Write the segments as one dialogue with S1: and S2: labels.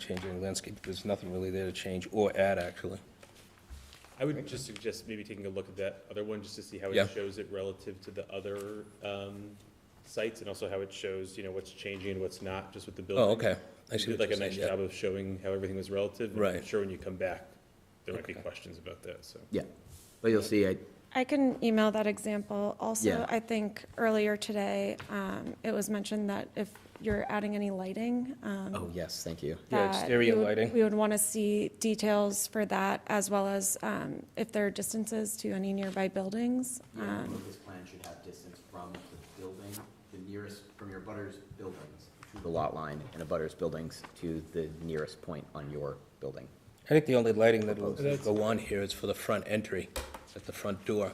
S1: change any landscape. There's nothing really there to change or add, actually.
S2: I would just suggest maybe taking a look at that other one, just to see how
S1: Yeah.
S2: it shows it relative to the other, um, sites, and also how it shows, you know, what's changing and what's not, just with the building.
S1: Oh, okay. I
S2: You
S1: see
S2: did
S1: what
S2: like a
S1: you're
S2: nice
S1: saying, yeah.
S2: job of showing how everything was relative. and I'm
S1: Right.
S2: sure when you come back, there might be
S1: Okay.
S2: questions about that, so.
S3: Yeah, but you'll see, I,
S4: I can email that example.
S3: Yeah.
S4: Also, I think earlier today, um, it was mentioned that if you're adding any lighting, um,
S3: oh, yes, thank you.
S1: Yeah,
S4: that
S1: exterior
S4: we would-
S1: lighting.
S4: We would want to see details for that, as well as um, if there are distances to any nearby buildings.
S5: Yeah, I
S4: Um,
S5: think this plan should have distance from the building, the nearest, from your butter's buildings
S3: To The lot line and a butter's buildings to the nearest point on your building.
S1: I think the only lighting that will go on here is for the front entry, at the front door.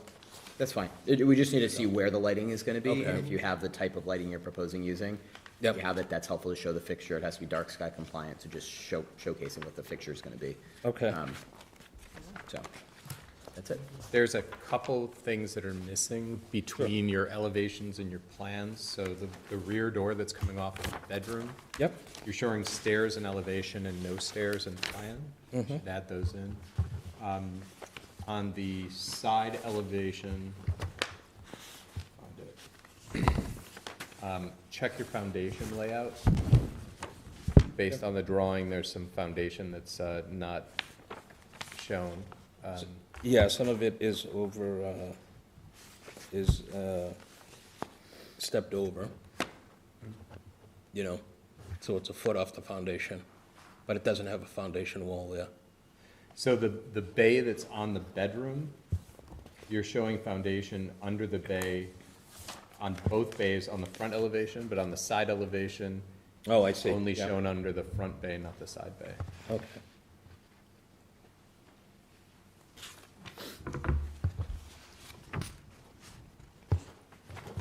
S3: That's fine. It- We just need to see where the lighting is gonna be, and
S1: Okay.
S3: if you have the type of lighting you're proposing using. if
S1: Yep.
S3: You have it, that's helpful to show the fixture. It has to be dark sky compliant, so just show, showcasing what the fixture's gonna be.
S1: Okay.
S3: Um, So, that's it.
S6: There's a couple of things that are missing between your elevations and your plans. So the, the rear door that's coming off of the bedroom,
S1: Yep.
S6: you're showing stairs and elevation and no stairs in the plan. Should add those in. Um, On the side elevation, find it. Um, check your foundation layout. Based on the drawing, there's some foundation that's uh, not shown. Um,
S1: Yeah, some of it is over, uh, is uh, stepped over, you know, so it's a foot off the foundation, but it doesn't have a foundation wall there.
S6: So the, the bay that's on the bedroom, you're showing foundation under the bay, on both bays, on the front elevation, but on the side elevation,
S1: Oh, I see.
S6: only
S1: Yeah.
S6: shown under the front bay, not the side bay.
S1: Okay.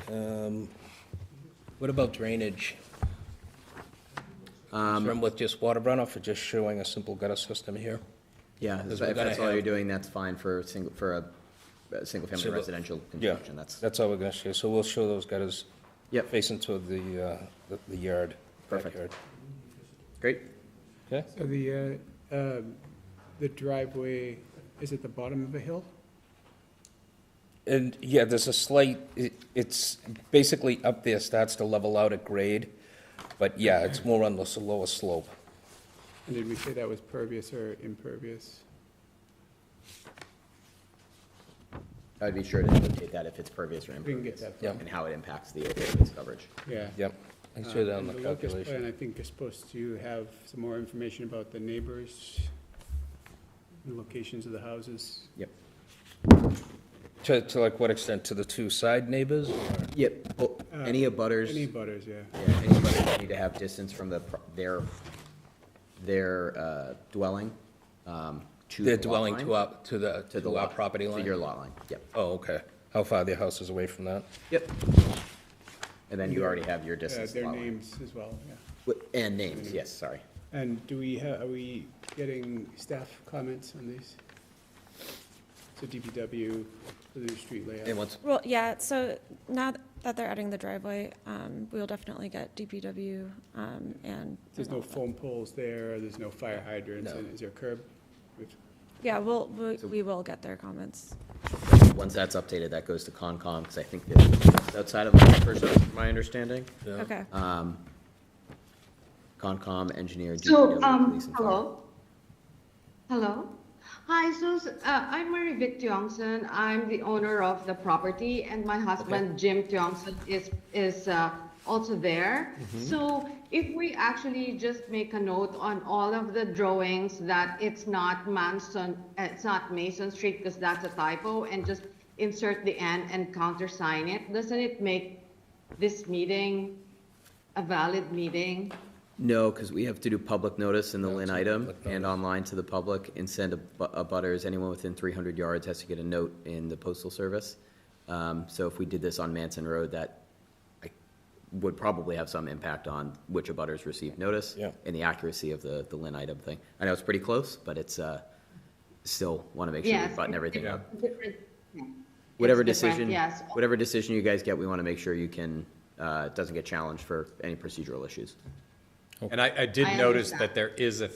S1: Um, What about drainage?
S3: Um,
S1: From with just water runoff or just showing a simple gutter system here?
S3: Yeah,
S1: Because
S3: if
S1: we're
S3: if that's
S1: gonna
S3: all you're
S1: have-
S3: doing, that's fine for a single, for a, a single-family
S1: Single-
S3: residential construction, that's,
S1: That's all we're gonna show, so we'll show those gutters
S3: Yep.
S1: facing toward the, uh, the- the yard.
S3: Perfect.
S1: backyard.
S3: great.
S1: Okay?
S7: So the, uh, um, the driveway is at the bottom of a hill?
S1: And, yeah, there's a slight, it, it's basically up there, starts to level out at grade, but yeah, it's more on the s- lower slope.
S7: And did we say that was pervious or impervious?
S3: I'd be sure to notate that if it's pervious or
S7: We can get
S3: impervious,
S7: that.
S1: Yeah.
S3: and how it impacts the area of its coverage.
S7: Yeah.
S1: Yep, I can show that
S7: Uh,
S1: on the
S7: and locust plan,
S1: calculation.
S7: I think you're supposed to have some more information about the neighbors, the locations of the houses.
S3: Yep.
S1: To, to like what extent, to the two side neighbors? or-
S3: Yep, oh,
S7: Uh,
S3: any abutters,
S7: Any
S3: yeah,
S7: butters, yeah.
S3: any abutters need to have distance from the, pro- their, their uh, dwelling, um, to the
S1: They're
S3: lot
S1: dwelling
S3: line,
S1: to our, to the,
S3: to the
S1: to our
S3: lot-
S1: property line?
S3: To your lot line, yep,
S1: Oh, okay. How far their house is away from that?
S3: yep. And then you already have your
S7: Uh,
S3: distance to the
S7: Their
S3: lot line.
S7: names as well, yeah.
S3: Wi- And names, yes, sorry.
S7: And do we, ha- are we getting staff comments on these? So DPW, the new street layout?
S1: And what's,
S4: Well, yeah, so now that they're adding the driveway, um, we'll definitely get DPW um, and.
S7: There's no foam poles there, there's no fire hydrants,
S1: No.
S7: and is there a curb?
S4: Yeah, we'll, we- we will get their comments.
S3: Once that's updated, that goes to Concom, because I think that, outside of the first, from my understanding,
S4: Okay.
S3: um, Concom, engineer,
S8: So,
S3: DPW,
S8: um,
S3: police, and fire.
S8: hello. Hello. Hi, so uh, I'm Mary Vic Tiongson. I'm the owner of the property, and my husband Jim Tiongson is is uh, also there. So, if we actually just make a note on all of the drawings that it's not Manson, it's not Mason Street because that's a typo, and just insert the N and countersign it. Doesn't it make this meeting a valid meeting?
S3: No, because we have to do public notice in the Lynn item
S1: public
S3: and online to the public and send a bu- a butters, anyone within 300 yards has to get a note in the postal service. Um, So if we did this on Manson Road, that I- would probably have some impact on which abutters received notice.
S1: Yeah.
S3: And the accuracy of the, the Lynn item thing. I know it's pretty close, but it's, uh, still want to make sure we
S8: Yes.
S3: button everything up.
S8: Different- yeah.
S3: Whatever
S8: It's different,
S3: decision,
S8: Yes.
S3: whatever decision you guys get, we want to make sure you can, uh, it doesn't get challenged for any procedural issues.
S6: And I, I did
S8: I
S6: notice
S8: understand.
S6: that there is a